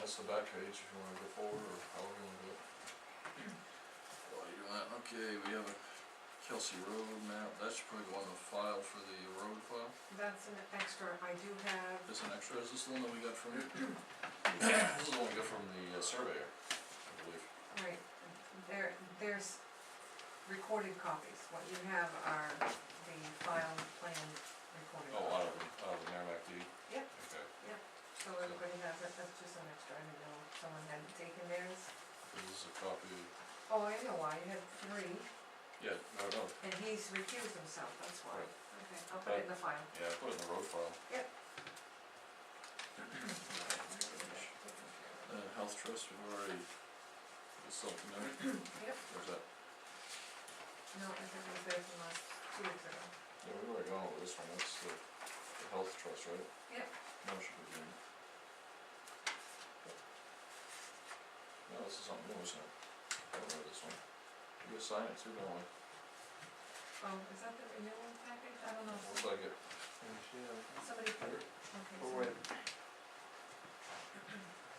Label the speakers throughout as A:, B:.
A: That's the back page, if you wanna go forward, or how we gonna do it.
B: While you're doing that, okay, we have a Kelsey Road map, that's probably the one to file for the road file,
C: That's an extra, I do have,
B: that's an extra, is this the one that we got from you?
A: This is the one we got from the uh, surveyor, I believe.
C: right, there, there's recorded copies, what you have are the file plan recorded.
A: Oh, out
C: copies.
A: of, the- out of the Merrimack deed?
C: Yep.
A: Okay,
C: So everybody has it, that's just an extra, I didn't know if someone had taken theirs.
A: this is a copy,
C: Oh, I know why, you had three,
A: yeah, no, no,
C: and he's recused himself, that's why.
A: Right.
C: Okay, I'll put it in the file.
A: yeah, I put it in the road file.
B: Uh, Health Trust, we've already, it's something there,
C: Yep,
B: there's that,
C: no, I think it was there from last two weeks ago.
A: Yeah, we've already gone over this one, that's the, the health trust, right?
C: Yep.
A: Motion to begin. No, this is something new, isn't it? I don't know this one. You assign it to that one,
C: Oh, is that the renewal package? I don't know,
A: looks like it.
C: somebody put, okay, so,
A: Here.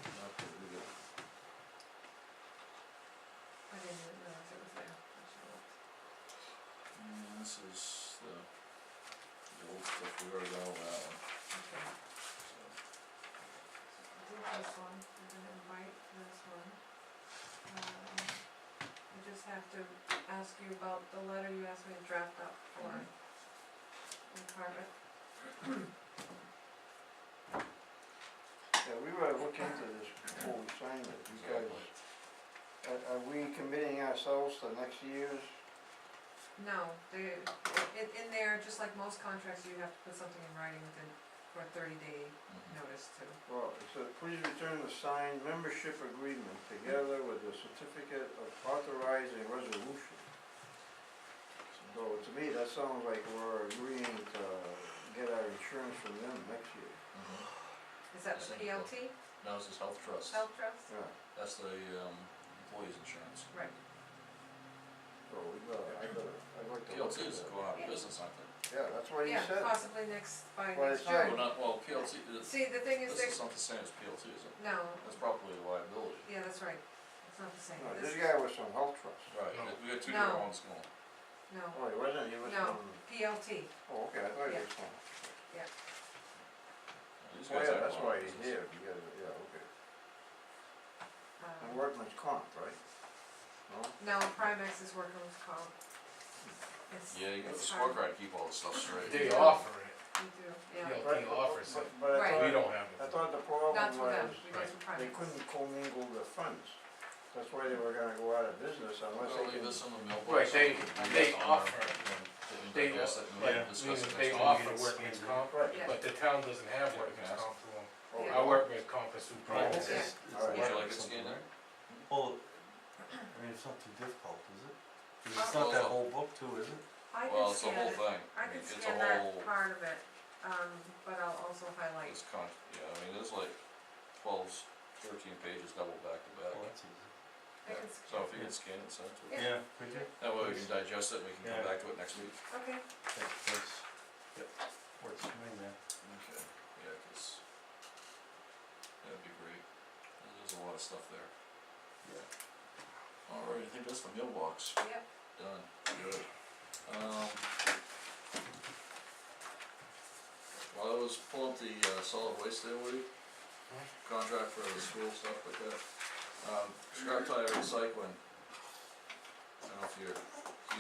A: Not that we get-
C: I didn't even know if it was there. I should've looked.
A: mm,
B: and this is the, the old stuff, we already got all that one,
C: Okay,
B: so.
C: so do this one, and then invite this one. Um, I just have to ask you about the letter you asked me to draft up for
B: Mhm.
C: the carpet.
D: Yeah, we gotta look into this before we sign it, because are, are we committing ourselves to next year's?
C: No, they, in, in there, just like most contracts, you have to put something in writing within, for a thirty day
B: Mhm.
A: Mm-hmm.
C: notice to.
D: Well, it says, please return the signed membership agreement together with the certificate of authorizing resolution. So to me, that sounds like we're agreeing to get our insurance from them next year.
A: mm-hmm.
B: Mhm.
C: Is that the
B: Same book.
C: PLT,
B: Now this is Health Trust,
C: Health Trust?
D: Yeah,
B: that's the, um, employees insurance.
C: Right,
D: so we gotta, I gotta, I'd like to look
B: PLT
D: at
B: is
D: that.
B: going out of business, aren't they?
D: Yeah, that's what he
C: yeah,
D: said.
C: possibly next, by
D: Well,
C: next
D: it's not-
C: year.
B: Well, not, well, PLT, this,
C: See, the thing is,
B: this is
C: there's,
B: not the same as PLT, is it?
C: no,
B: That's probably a liability.
C: yeah, that's right, it's not the same,
D: No,
C: this,
D: this guy was from Health Trust.
B: Right,
A: No.
B: we got two different
C: No.
B: ones going.
C: no,
D: Oh, he wasn't, he was
C: No.
D: from,
C: PLT,
D: oh, okay, I thought he
C: Yeah.
D: was from.
B: These
D: Oh,
B: guys
D: yeah,
B: aren't
D: that's
B: going out
D: why
B: of
D: he's
B: business.
D: here, because, yeah, okay.
C: Uh-huh.
D: And
C: um,
D: workman's comp, right? No?
C: no, Primex is working with Carl. It's,
A: Yeah, you got the
C: It's hard.
A: scorecard, keep all the stuff straight.
E: They
C: Yeah.
E: offer it,
C: you do, yeah,
E: Yeah.
D: Right,
E: he
D: but-
E: offers
D: but-
E: it.
C: Right.
D: But
E: we
D: I thought,
E: don't have
D: I
E: it.
D: thought the problem
C: that's for them,
D: was,
C: we go through Primex.
D: they couldn't commingle the funds. That's why they were gonna go out of business unless
B: Well,
D: they
B: leave
D: can,
B: this in the mailbox.
E: Right,
B: I
E: they-
B: guess
E: they
B: on our-
E: offer.
B: and
E: They
B: digest
E: o-
B: it and we
E: Yeah,
B: can
E: meaning
B: discuss it
E: they
B: next time.
E: offer workman's comp,
D: right.
C: Yeah.
E: but the town doesn't have
B: Yeah,
E: workman's
B: yes.
E: comp for them.
D: Oh,
C: Yeah.
E: Our workman's comp is through
D: Oh,
E: private.
D: okay.
B: Would
D: Alright,
B: you like it scanned there?
F: Well, I mean, it's not too difficult, is it? 'Cause it's
B: Uh,
F: not that
B: well-
F: whole book too, is it?
C: I
B: Well,
C: can
B: it's the
C: scan
B: whole
C: it,
B: thing.
C: I
B: mean,
C: can
B: it's a
C: scan
B: whole-
C: that part of it, um, but I'll also highlight,
A: It's con, yeah, I mean, there's like twelve, thirteen pages double back to back.
F: Well, that's easy.
C: I can,
A: So
C: scan-
A: if you can scan it, send it to us.
C: Yeah.
F: Could you?
A: That way we can digest it, and we can come
F: Yeah.
A: back to it next week.
C: okay,
F: That works.
A: Yep.
F: Works for me, man.
A: Okay. Yeah, cause that'd be great. There's a lot of stuff there. Yeah.
B: Alright, I think that's the mailbox,
C: yep,
A: Done. Good.
B: um.
A: While I was pulling up the uh, solid waste there, Woody, contract for the school, stuff like that, um, scrap tire recycling. I don't know if you're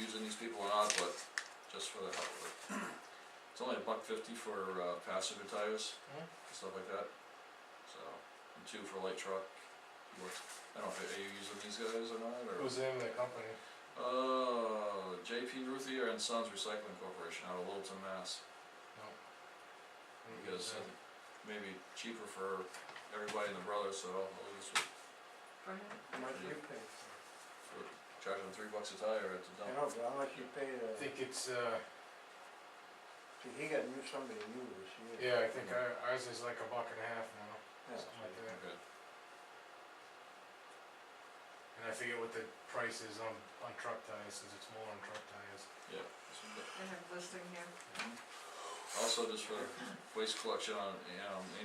A: using these people or not, but just for the hell of it. It's only a buck fifty for, uh, passenger tires,
E: Mhm.
A: and stuff like that, so, and two for light truck. Works- I don't know, if- are you using these guys or not, or?
E: Who's in the company?
A: Uh, JP Ruthier and Sons Recycling Corporation out of Littleton, Mass. Because
E: Yeah.
A: maybe cheaper for everybody and the brothers, so I'll I'll use it
C: go ahead.
D: How much you pay?
A: for charging them three bucks a tire at the
D: You
A: dump.
D: know, but how much you pay
E: I
D: to,
E: think it's, uh,
D: see, he got new, somebody new this year.
E: yeah, I think our- ours is like a buck and a half now,
D: Yeah.
E: something like that.
A: Okay,
E: And I forget what the price is on, on truck tires, since it's more on truck tires.
A: yeah. that's good.
C: I have listing here.
A: Also, just for waste collection on, um,